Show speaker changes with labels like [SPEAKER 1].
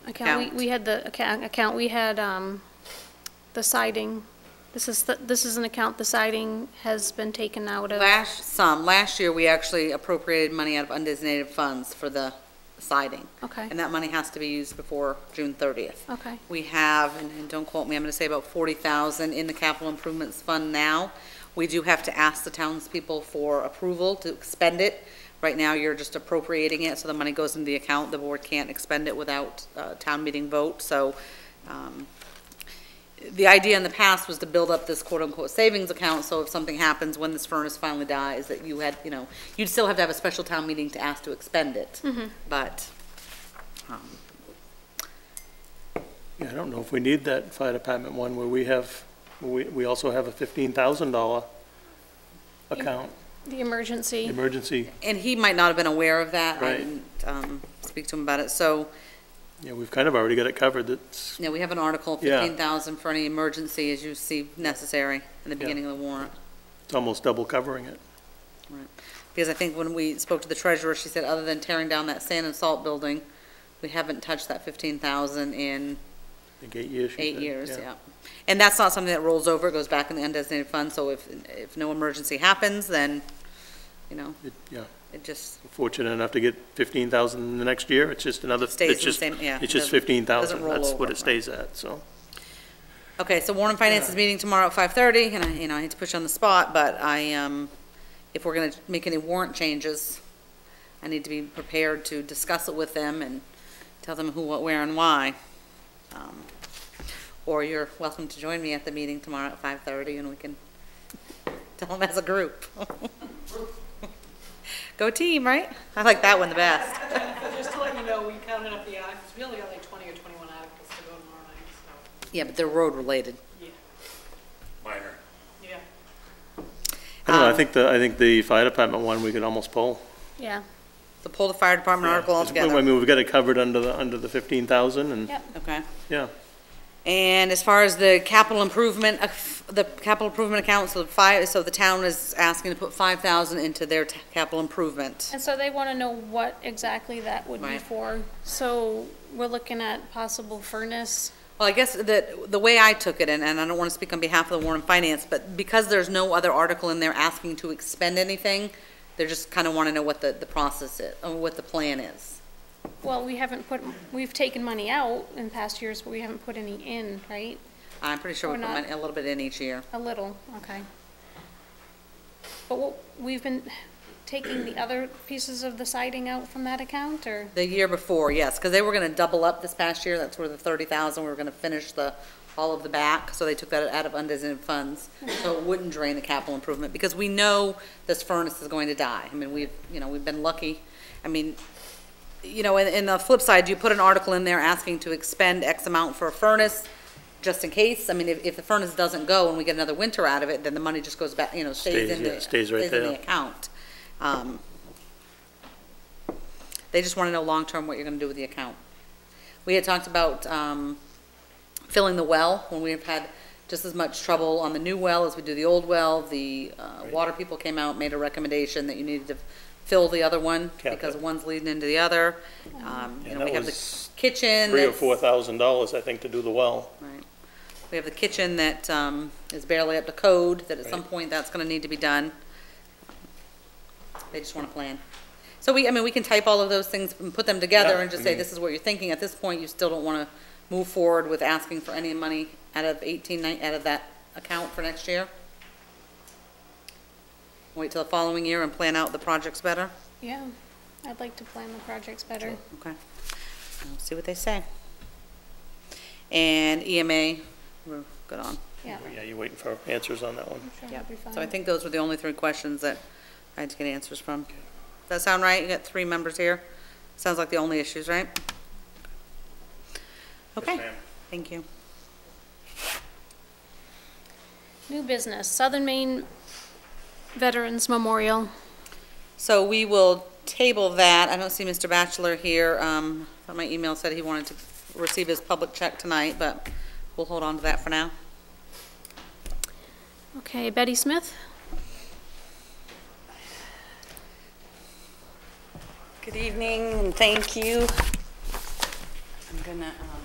[SPEAKER 1] Account, we, we had the account, account, we had, um, the siding. This is, the- this is an account the siding has been taken out of.
[SPEAKER 2] Last, some, last year, we actually appropriated money out of undesignated funds for the siding,
[SPEAKER 1] Okay,
[SPEAKER 2] and that money has to be used before June 30th.
[SPEAKER 1] okay,
[SPEAKER 2] We have, and and don't quote me, I'm going to say about 40,000 in the capital improvements fund now. We do have to ask the townspeople for approval to expend it. Right now, you're just appropriating it, so the money goes into the account. The board can't expend it without uh, town meeting vote, so um, the idea in the past was to build up this quote-unquote savings account, so if something happens when this furnace finally dies, that you had, you know, you'd still have to have a special town meeting to ask to expend it. But um,
[SPEAKER 3] Yeah, I don't know if we need that fire department one where we have, we, we also have a fifteen thousand dollar account,
[SPEAKER 1] the emergency,
[SPEAKER 3] emergency.
[SPEAKER 2] And he might not have been aware of that. I
[SPEAKER 3] Right.
[SPEAKER 2] didn't um, speak to him about it. So,
[SPEAKER 3] Yeah, we've kind of already got it covered. That's,
[SPEAKER 2] you know, we have an article,
[SPEAKER 3] Yeah.
[SPEAKER 2] 15,000 for any emergency as you see necessary in the beginning of the warrant.
[SPEAKER 3] it's almost double covering it.
[SPEAKER 2] Because I think when we spoke to the treasurer, she said, other than tearing down that sand and salt building, we haven't touched that 15,000 in
[SPEAKER 3] I think eight years. she
[SPEAKER 2] eight
[SPEAKER 3] said,
[SPEAKER 2] years, yeah. And that's not something that rolls over, it goes back in the undesignated fund. So if, if no emergency happens, then, you know,
[SPEAKER 3] It- Yeah,
[SPEAKER 2] it just
[SPEAKER 3] We're fortunate enough to get fifteen thousand the next year. It's just another, it's
[SPEAKER 2] stays in the
[SPEAKER 3] just,
[SPEAKER 2] same, yeah.
[SPEAKER 3] it's
[SPEAKER 2] doesn't-
[SPEAKER 3] just fifteen thousand.
[SPEAKER 2] doesn't roll
[SPEAKER 3] That's what
[SPEAKER 2] over,
[SPEAKER 3] it stays at, so.
[SPEAKER 2] Okay, so Warren Finance is meeting tomorrow at five thirty, and I, you know, I hate to put you on the spot, but I, um, if we're gonna make any warrant changes, I need to be prepared to discuss it with them and tell them who, what, where, and why. Um, Or you're welcome to join me at the meeting tomorrow at five thirty, and we can tell them as a group. Go team, right? I like that one the best.
[SPEAKER 4] Just to let you know, we counted up the articles, we only got like 20 or 21 articles to go tomorrow night, so,
[SPEAKER 2] Yeah, but they're road-related.
[SPEAKER 4] yeah,
[SPEAKER 5] minor.
[SPEAKER 4] yeah.
[SPEAKER 3] I don't know, I
[SPEAKER 2] Um,
[SPEAKER 3] think the, I think the fire department one, we could almost pull.
[SPEAKER 1] yeah,
[SPEAKER 2] So pull the fire department article
[SPEAKER 3] Yeah, 'cause we- I
[SPEAKER 2] altogether.
[SPEAKER 3] mean, we've got it covered under the, under the fifteen thousand and,
[SPEAKER 1] yep.
[SPEAKER 2] Okay.
[SPEAKER 3] yeah.
[SPEAKER 2] And as far as the capital improvement, uh, the capital improvement account, so the five, so the town is asking to put five thousand into their t- capital improvement.
[SPEAKER 1] And so they want to know what exactly that would be
[SPEAKER 2] Right.
[SPEAKER 1] for. So we're looking at possible furnace.
[SPEAKER 2] Well, I guess that, the way I took it, and, and I don't want to speak on behalf of the Warren Finance, but because there's no other article in there asking to expend anything, they're just kind of want to know what the, the process is, or what the plan is.
[SPEAKER 1] Well, we haven't put, we've taken money out in past years, but we haven't put any in, right?
[SPEAKER 2] I'm pretty sure we
[SPEAKER 1] We're
[SPEAKER 2] put
[SPEAKER 1] not-
[SPEAKER 2] mon- a little bit in each year.
[SPEAKER 1] A little, okay. But what, we've been taking the other pieces of the siding out from that account, or?
[SPEAKER 2] The year before, yes, because they were going to double up this past year, that's where the thirty thousand, we were going to finish the, all of the back, so they took that out of undesignated funds, so it wouldn't drain the capital improvement, because we know this furnace is going to die. I mean, we've, you know, we've been lucky, I mean, you know, and, and the flip side, you put an article in there asking to expend X amount for a furnace, just in case, I mean, if, if the furnace doesn't go and we get another winter out of it, then the money just goes back, you know, stays
[SPEAKER 3] Stays,
[SPEAKER 2] in
[SPEAKER 3] yeah,
[SPEAKER 2] the,
[SPEAKER 3] stays right
[SPEAKER 2] in the
[SPEAKER 3] there.
[SPEAKER 2] account. Um, They just want to know long-term what you're going to do with the account. We had talked about um, filling the well, when we've had just as much trouble on the new well as we do the old well. The uh, water people came out, made a recommendation that you needed to fill the other one
[SPEAKER 3] Cap it.
[SPEAKER 2] because one's leading into the other. Um, You
[SPEAKER 3] Yeah,
[SPEAKER 2] know, we
[SPEAKER 3] that
[SPEAKER 2] have the
[SPEAKER 3] was
[SPEAKER 2] kitchen.
[SPEAKER 3] Three or
[SPEAKER 2] that's-
[SPEAKER 3] four thousand dollars, I think, to do the well.
[SPEAKER 2] Right. We have the kitchen that um, is barely up to code, that at some
[SPEAKER 3] Right.
[SPEAKER 2] point that's going to need to be done. They just want to plan. So we, I mean, we can type all of those things and put them together
[SPEAKER 3] Yeah,
[SPEAKER 2] and just
[SPEAKER 3] I
[SPEAKER 2] say,
[SPEAKER 3] mean-
[SPEAKER 2] this is what you're thinking. At this point, you still don't want to move forward with asking for any money out of 18, ni- out of that account for next year? Wait till the following year and plan out the projects better?
[SPEAKER 1] Yeah, I'd like to plan the projects better.
[SPEAKER 2] Okay. We'll See what they say. And EMA, we're good on.
[SPEAKER 1] Yeah,
[SPEAKER 3] Yeah, you're waiting for answers on that one.
[SPEAKER 1] I'm sure
[SPEAKER 2] Yeah,
[SPEAKER 1] it'll be fine.
[SPEAKER 2] so I think those were the only three questions that I had to get answers from. Does that sound right? You got three members here? Sounds like the only issues, right? Okay,
[SPEAKER 5] ma'am.
[SPEAKER 2] thank you.
[SPEAKER 1] New business, Southern Maine Veterans Memorial.
[SPEAKER 2] So we will table that. I don't see Mr. Bachelor here. Um, but my email said he wanted to receive his public check tonight, but we'll hold on to that for now.
[SPEAKER 1] Okay, Betty Smith?
[SPEAKER 6] Good evening and thank you.
[SPEAKER 2] I'm gonna, um,